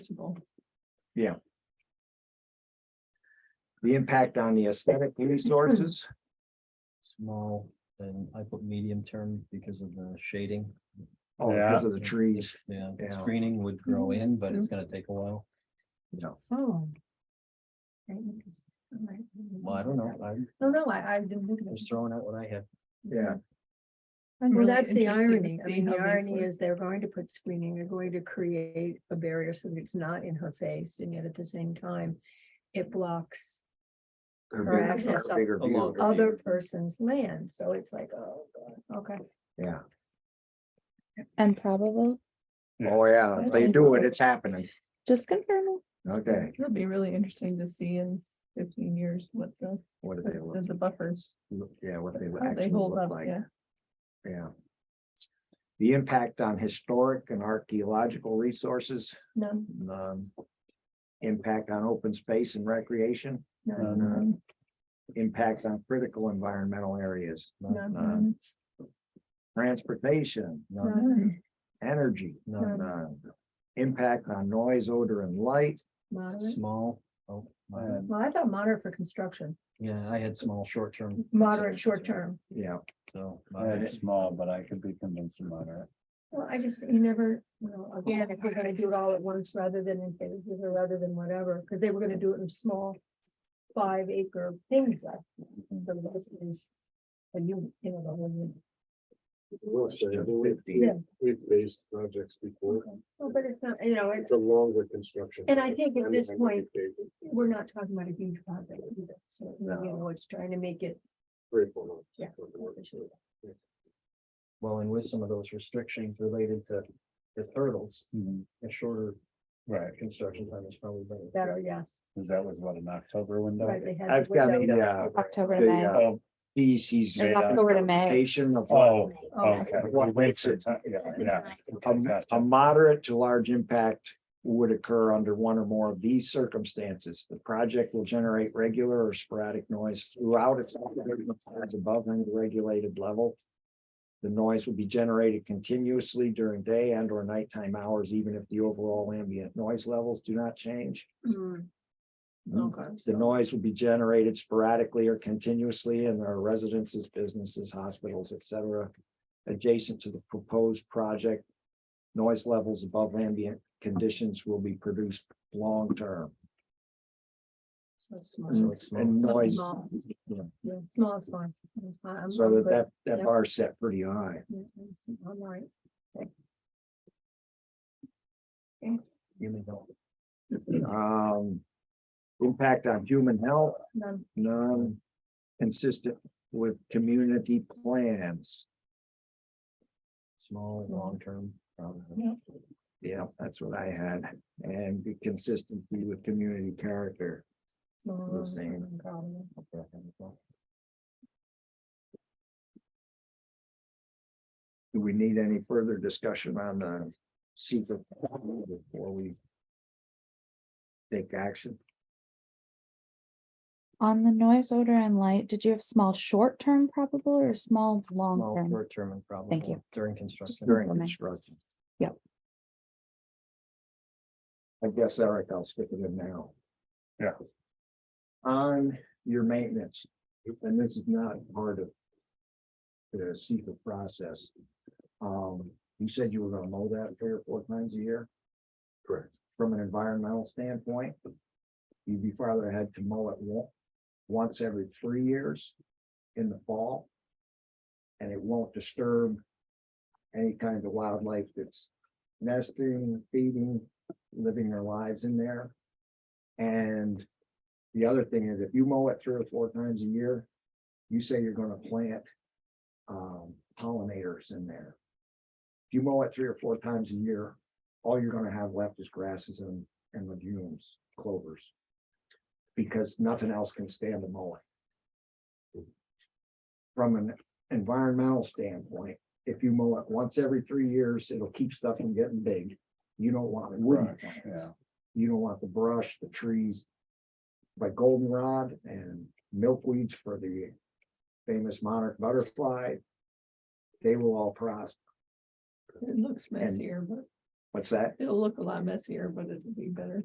reasonable. the impact on the aesthetic resources. small, and I put medium term because of the shading. Oh, because of the trees, Yeah, Yeah. screening would grow in, but it's gonna take a while. you know, Oh. Very interesting. All right. Well, I don't know, I'm Oh, No, no, I, I didn't think of it. just throwing out what I have. yeah, Well, I'm really that's the interested to irony. I see mean, how the these irony work. is they're going to put screening, they're going to create a barrier so that it's not in her face, and yet at the same time, it blocks her Or bigger- access her bigger a view. longer other person's land, so it's like, oh, God, okay. Yeah, And probable, oh, yeah, if they do it, it's happening, just confirming. okay, It'll be really interesting to see in fifteen years what the, what do they, the look- the buffers, yeah, what they would how they actually hold look up, like, yeah. yeah. The impact on historic and archaeological resources, No, um, impact on open space and recreation, no, um, impact on critical environmental areas, no, um, transportation, None, no, energy, none, um, impact on noise, odor, and light, moderate. small, oh, I had- Well, I thought moderate for construction, yeah, I had small, short term. moderate, short term. yeah, So. I had moderate. small, but I could be convinced of moderate. Well, I just, you never, you know, again, if we're gonna do it all at once rather than in phases or rather than whatever, because they were gonna do it in small five acre things. like, So this is a unit, you know, the whole unit. Well, so we- fifty. We've raised projects before, Well, but it's not, you know, it- it's a longer construction. And I think at this I would point- take we're not talking about a huge project either. So, you know, it's trying to make it. three or four months. Yeah. Well, and with some of those restrictions related to the hurdles, Mhm. a shorter Right, construction time is probably better. Better, yes. because that was what, an October window? Right, they had I've got window- a, uh, October to The, May. uh, Oh, theses. Yeah. October to May. Station of what oh, Oh, okay. What We makes wasted it- time, Yeah, yeah. a- a Gotcha. moderate to large impact would occur under one or more of these circumstances. The project will generate regular or sporadic noise throughout its operating times above any regulated level. The noise will be generated continuously during day and or nighttime hours, even if the overall ambient noise levels do not change. Mm, Okay. The noise will be generated sporadically or continuously in their residences, businesses, hospitals, et cetera. Adjacent to the proposed project. Noise levels above ambient conditions will be produced long term. So small. So it's and Something Mm, noise, small. yeah. Yeah, small is fine. I- I'm- so I'm that good. that that Yep. bar set pretty high. Yeah, I'm- I'm all right. You may go. Um. Impact on human health, None. none consistent with community plans. Small, Small. long term, probably. Yeah, that's what I had and be consistency with community character. Small, same. no problem. Do we need any further discussion on the secret before we take action? On the noise, odor and light, did you have small, short term probable or small, long Small, term? short term and probably. Thank you. During construction. During Okay. construction. Yep. I guess, Eric, I'll stick it in now. Yeah. On your maintenance, and this is not part of the secret process. Um, you said you were gonna mow that three or four times a year? Correct. From an environmental standpoint, you'd be farther ahead to mow it one, once every three years in the fall. And it won't disturb any kind of wildlife that's nesting, feeding, living their lives in there. And the other thing is if you mow it three or four times a year, you say you're gonna plant um, pollinators in there. If you mow it three or four times a year, all you're gonna have left is grasses and, and legumes, clovers. Because nothing else can stand the mowing. From an environmental standpoint, if you mow it once every three years, it'll keep stuff from getting big. You don't want woody Brush, plants. Yeah, You don't want the brush, the trees. But goldenrod and milkweeds for the famous monarch butterfly. They will all prosper. It looks messier, but What's that? It'll look a lot messier, but it'll be better.